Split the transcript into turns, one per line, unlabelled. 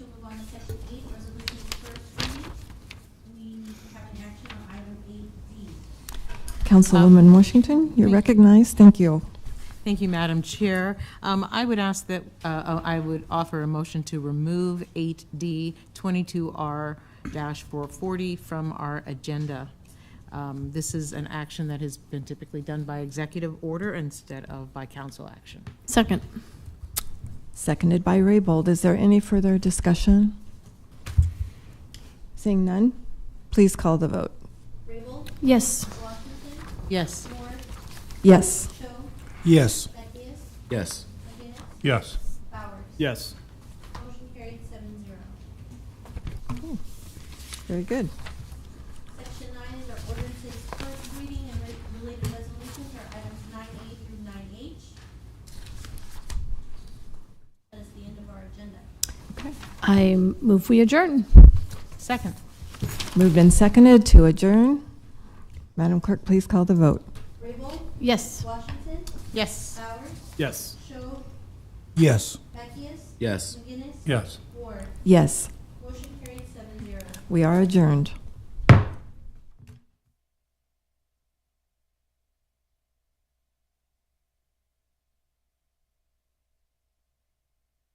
Councilwoman Washington, you're recognized. Thank you.
Thank you, Madam Chair. Um, I would ask that, uh, uh, I would offer a motion to remove 8D 22R-440 from our agenda. Um, This is an action that has been typically done by executive order instead of by council action.
Second.
Seconded by Raybold. Is there any further discussion? Seeing none, please call the vote.
Rabel,
Yes.
Washington,
Yes,
Moore,
Yes.
Cho,
Yes.
Beckius,
Yes.
McGinnis,
Yes.
Bowers.
Yes.
Motion carried seven zero.
Very good.
Section nine is our ordinances first reading and re- related resolutions are items nine A through nine H. That is the end of our agenda.
Okay.
I move we adjourn.
second.
Moved and seconded to adjourn. Madam Clerk, please call the vote.
Rabel,
Yes.
Washington,
Yes.
Bowers,
Yes.
Cho,
Yes.
Beckius,
Yes.
McGinnis,
Yes.
Ward.
Yes,
Motion carried seven zero.
we are adjourned.